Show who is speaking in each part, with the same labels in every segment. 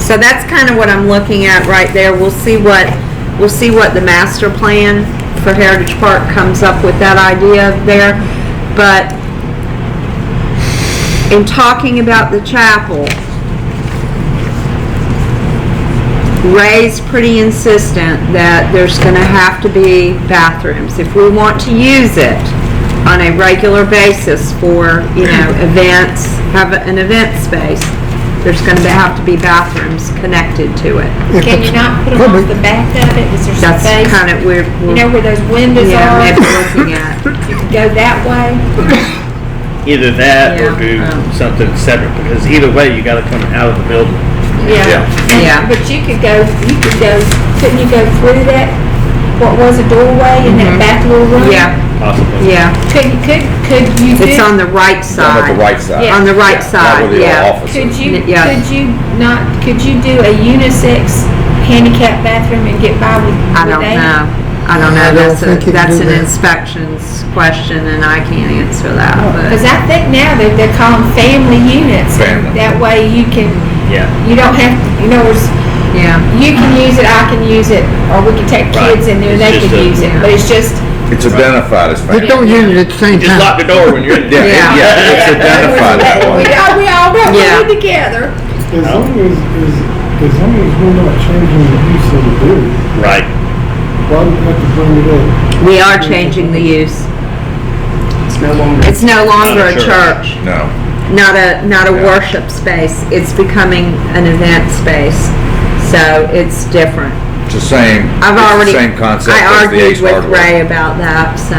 Speaker 1: So that's kind of what I'm looking at right there. We'll see what, we'll see what the master plan for Heritage Park comes up with that idea there. But in talking about the chapel, Ray's pretty insistent that there's gonna have to be bathrooms. If we want to use it on a regular basis for, you know, events, have an event space, there's gonna have to be bathrooms connected to it.
Speaker 2: If
Speaker 3: Can
Speaker 2: it's-
Speaker 3: you not put them off
Speaker 2: could be.
Speaker 3: the back of it? Is there
Speaker 1: That's
Speaker 3: space?
Speaker 1: kind of where,
Speaker 3: You
Speaker 1: we're-
Speaker 3: know where those windows
Speaker 1: yeah,
Speaker 3: are?
Speaker 1: maybe looking at.
Speaker 3: You could go that way.
Speaker 4: Either that or
Speaker 1: Yeah,
Speaker 4: do
Speaker 1: um.
Speaker 4: something separate, because either way, you gotta come out of the building.
Speaker 3: Yeah. And-
Speaker 1: Yeah.
Speaker 3: But you could go, you could go, couldn't you go through that, what was a doorway in that back little room?
Speaker 1: Mm-hmm. Yeah,
Speaker 4: Possibly.
Speaker 1: yeah.
Speaker 3: Could, could, could you do?
Speaker 1: It's on the right
Speaker 5: Down at the
Speaker 1: side.
Speaker 5: right side.
Speaker 3: Yeah.
Speaker 1: On the right
Speaker 5: Not
Speaker 1: side,
Speaker 5: where the
Speaker 1: yeah.
Speaker 5: office
Speaker 3: Could
Speaker 5: is.
Speaker 3: you,
Speaker 1: Yeah.
Speaker 3: could you not, could you do a unisex handicap bathroom and get by with?
Speaker 1: I
Speaker 3: with
Speaker 1: don't
Speaker 3: that?
Speaker 1: know. I don't
Speaker 2: I
Speaker 1: know.
Speaker 2: don't
Speaker 1: That's a,
Speaker 2: think you can
Speaker 1: that's an
Speaker 2: do that.
Speaker 1: inspections question and I can't answer that, but.
Speaker 3: Cause I think now they, they call them family units.
Speaker 5: Family.
Speaker 3: That way you can,
Speaker 4: Yeah.
Speaker 3: you don't have, you know, it's-
Speaker 1: Yeah,
Speaker 3: you can use it, I can use it, or we can take
Speaker 4: Right.
Speaker 3: kids in there,
Speaker 4: It's
Speaker 3: they
Speaker 4: just
Speaker 3: can
Speaker 4: a-
Speaker 3: use it, but it's just,
Speaker 5: It's identified as
Speaker 2: They
Speaker 5: family.
Speaker 2: don't use it at the same
Speaker 4: You Just lock
Speaker 2: time.
Speaker 4: the door when you're in
Speaker 5: Yeah,
Speaker 4: there.
Speaker 1: Yeah.
Speaker 5: it- yeah, it's identified as
Speaker 3: we
Speaker 5: one.
Speaker 3: all, we all got
Speaker 1: Yeah.
Speaker 3: one together.
Speaker 6: As long as, as, as long as we're not changing the use of the building,
Speaker 4: Right.
Speaker 6: why do we have to bring it up?
Speaker 1: we are changing the use.
Speaker 6: It's no longer.
Speaker 1: It's no longer a
Speaker 4: Not a church.
Speaker 1: church,
Speaker 5: No.
Speaker 1: not a, not a
Speaker 5: Yeah.
Speaker 1: worship space. It's becoming an event space. So it's different.
Speaker 5: It's the same, it's
Speaker 1: I've
Speaker 5: the
Speaker 1: already,
Speaker 5: same concept
Speaker 1: I
Speaker 5: as the
Speaker 1: argued
Speaker 5: Ace
Speaker 1: with Ray
Speaker 5: Hardware.
Speaker 1: about that, so,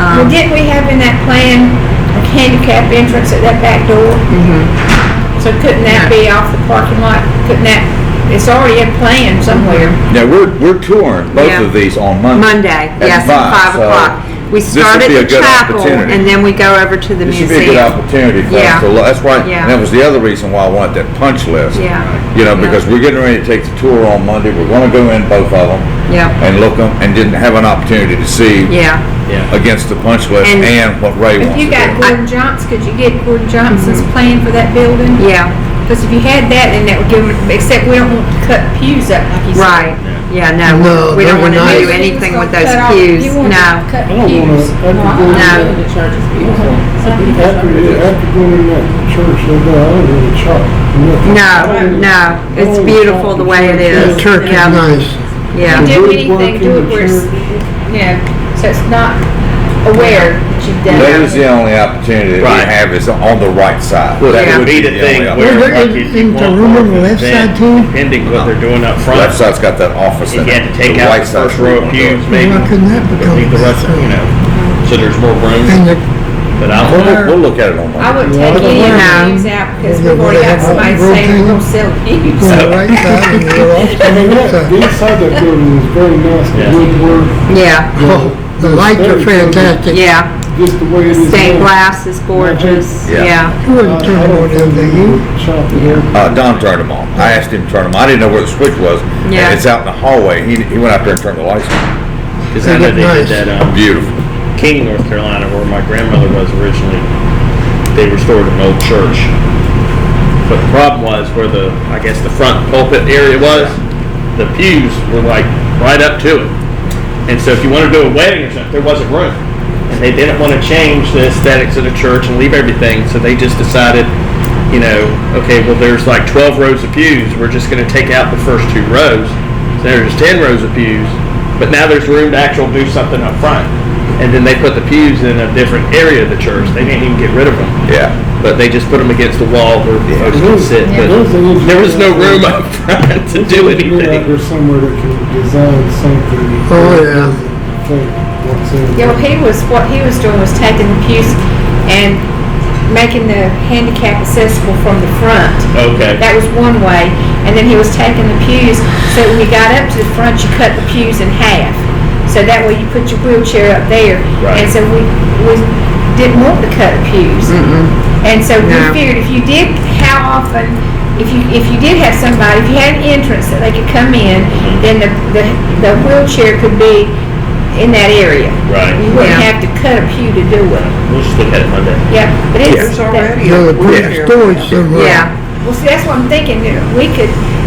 Speaker 3: Well,
Speaker 1: um,
Speaker 3: didn't we have in that plan a handicap entrance at that back door?
Speaker 1: Mm-hmm.
Speaker 3: So couldn't that be off the parking lot? Couldn't that, it's already a plan somewhere.
Speaker 1: Mm-hmm.
Speaker 5: Now, we're, we're touring both
Speaker 1: Yeah.
Speaker 5: of these on Monday.
Speaker 1: Monday, yes, at
Speaker 5: five,
Speaker 1: five
Speaker 5: so
Speaker 1: o'clock. We
Speaker 5: this would
Speaker 1: start at
Speaker 5: be
Speaker 1: the
Speaker 5: a good
Speaker 1: chapel
Speaker 5: opportunity.
Speaker 1: and then we go over to the
Speaker 5: This should be a good
Speaker 1: museum.
Speaker 5: opportunity for
Speaker 1: Yeah.
Speaker 5: us to, lo- that's why,
Speaker 1: Yeah.
Speaker 5: and that was the other reason why I wanted that punch list.
Speaker 1: Yeah.
Speaker 5: You know,
Speaker 1: Yeah.
Speaker 5: because we're getting ready to take the tour on Monday, we're gonna go in both of them
Speaker 1: Yeah,
Speaker 5: and look them, and didn't have an opportunity to see
Speaker 1: yeah,
Speaker 4: Yeah.
Speaker 5: against the punch list
Speaker 1: And-
Speaker 5: and what Ray
Speaker 3: If
Speaker 5: wants to
Speaker 3: you got
Speaker 5: do.
Speaker 3: Gordon Johnson, could you get Gordon Johnson's plan for that building?
Speaker 1: Mm-hmm. yeah,
Speaker 3: Because if you had that, then that would give them, except we don't want to cut pews up like you said.
Speaker 1: right, yeah,
Speaker 2: No,
Speaker 1: no, we don't
Speaker 2: those
Speaker 1: wanna
Speaker 2: are nice.
Speaker 1: do anything with those pews,
Speaker 3: You want to
Speaker 1: no.
Speaker 3: cut
Speaker 6: I don't wanna,
Speaker 3: pews.
Speaker 6: after going in
Speaker 1: No.
Speaker 6: that, after, after going in that church, I don't really chop. nothing. I
Speaker 1: No,
Speaker 6: don't
Speaker 1: no, it's
Speaker 6: really- I don't really
Speaker 1: beautiful
Speaker 6: chop
Speaker 1: the way it is.
Speaker 2: The church is
Speaker 1: Yeah.
Speaker 2: nice.
Speaker 1: Yeah.
Speaker 6: The
Speaker 3: Do
Speaker 6: woodwork
Speaker 3: anything, do
Speaker 6: in
Speaker 3: it
Speaker 6: the
Speaker 3: where it's,
Speaker 6: church.
Speaker 3: you know, so it's not aware that you've done
Speaker 5: That
Speaker 3: it.
Speaker 5: is the only opportunity that we
Speaker 4: Right.
Speaker 5: have is on the right side.
Speaker 4: Well,
Speaker 1: Yeah.
Speaker 4: that would be the
Speaker 5: Yeah.
Speaker 4: thing
Speaker 5: Yeah.
Speaker 4: where,
Speaker 2: Well,
Speaker 4: like,
Speaker 2: there
Speaker 4: if
Speaker 2: is-
Speaker 4: you
Speaker 2: is the
Speaker 4: want
Speaker 2: room
Speaker 4: more
Speaker 2: on the left
Speaker 4: event,
Speaker 2: side too?
Speaker 4: Depending what they're doing up front.
Speaker 5: Left side's got that office
Speaker 4: If
Speaker 5: in
Speaker 4: you had
Speaker 5: it.
Speaker 4: to take
Speaker 5: The
Speaker 4: out
Speaker 5: right
Speaker 4: the
Speaker 5: side's
Speaker 4: first
Speaker 5: where
Speaker 4: row of
Speaker 5: we wanna do it.
Speaker 4: pews, maybe.
Speaker 2: Why couldn't that become
Speaker 4: leave the rest,
Speaker 2: something?
Speaker 4: you know, so there's more room.
Speaker 2: And the
Speaker 4: But I
Speaker 5: We'll,
Speaker 4: don't
Speaker 5: look- we'll look at it on
Speaker 3: I
Speaker 5: Monday.
Speaker 3: wouldn't take any of the pews out because we've already got somebody saying we're gonna sell pews.
Speaker 2: on the
Speaker 4: So-
Speaker 2: right side and the left
Speaker 6: I
Speaker 2: side.
Speaker 6: mean, that, the inside that building is very nice,
Speaker 4: Yeah.
Speaker 6: the woodwork.
Speaker 1: Yeah,
Speaker 2: Oh, The lights are fantastic.
Speaker 1: yeah.
Speaker 6: Just the way it is.
Speaker 1: Stained
Speaker 6: now.
Speaker 1: glass is gorgeous,
Speaker 5: Yeah.
Speaker 1: yeah.
Speaker 2: You
Speaker 6: I I
Speaker 2: wouldn't
Speaker 6: don't
Speaker 2: turn on
Speaker 6: think
Speaker 2: them, do
Speaker 6: they would
Speaker 2: you?
Speaker 6: chop it up.
Speaker 5: Uh, Don turned them on. I asked him to turn them on. I didn't know where the switch was. and
Speaker 1: Yeah.
Speaker 5: it's out in the hallway. He, he went out there and turned the lights on.
Speaker 4: Because I know they did that, um,
Speaker 5: Beautiful.
Speaker 4: King, North Carolina, where my grandmother was originally, they restored an old church. But the problem was where the, I guess, the front pulpit area was, the pews were like right up to it. And so if you wanted to do a wedding or something, there wasn't room. And they didn't want to change the aesthetics of the church and leave everything, so they just decided, you know, okay, well, there's like 12 rows of pews, we're just going to take out the first two rows. So there's 10 rows of pews, but now there's room to actually do something up front. And then they put the pews in a different area of the church. They didn't even get rid of them
Speaker 5: Yeah.
Speaker 4: but they just put them against the wall where folks could sit. But
Speaker 6: There's an engineer
Speaker 4: there was no
Speaker 6: out there-
Speaker 4: room up front to do
Speaker 6: there's an engineer out
Speaker 4: anything.
Speaker 6: there somewhere that can design something.
Speaker 2: Oh, yeah.
Speaker 6: Think what's in.
Speaker 3: You know, he was, what he was doing was taking the pews and making the handicap accessible from the front.
Speaker 4: Okay.
Speaker 3: That was one way. And then he was taking the pews, so when you got up to the front, you cut the pews in half. So that way you put your wheelchair up there.
Speaker 4: Right.
Speaker 3: And so we, we didn't want to cut pews. And so we
Speaker 1: No.
Speaker 3: figured if you did, how often, if you, if you did have somebody, if you had an entrance that they could come in, then the, the, the wheelchair could be in that area.
Speaker 4: Right.
Speaker 3: You wouldn't
Speaker 1: Yeah.
Speaker 3: have to cut a pew to do it.
Speaker 4: We'll just look at it Monday.
Speaker 3: Yeah, but it's.
Speaker 2: You know, put a storage somewhere.
Speaker 1: Yeah,
Speaker 3: Well, see, that's what I'm thinking, that we could,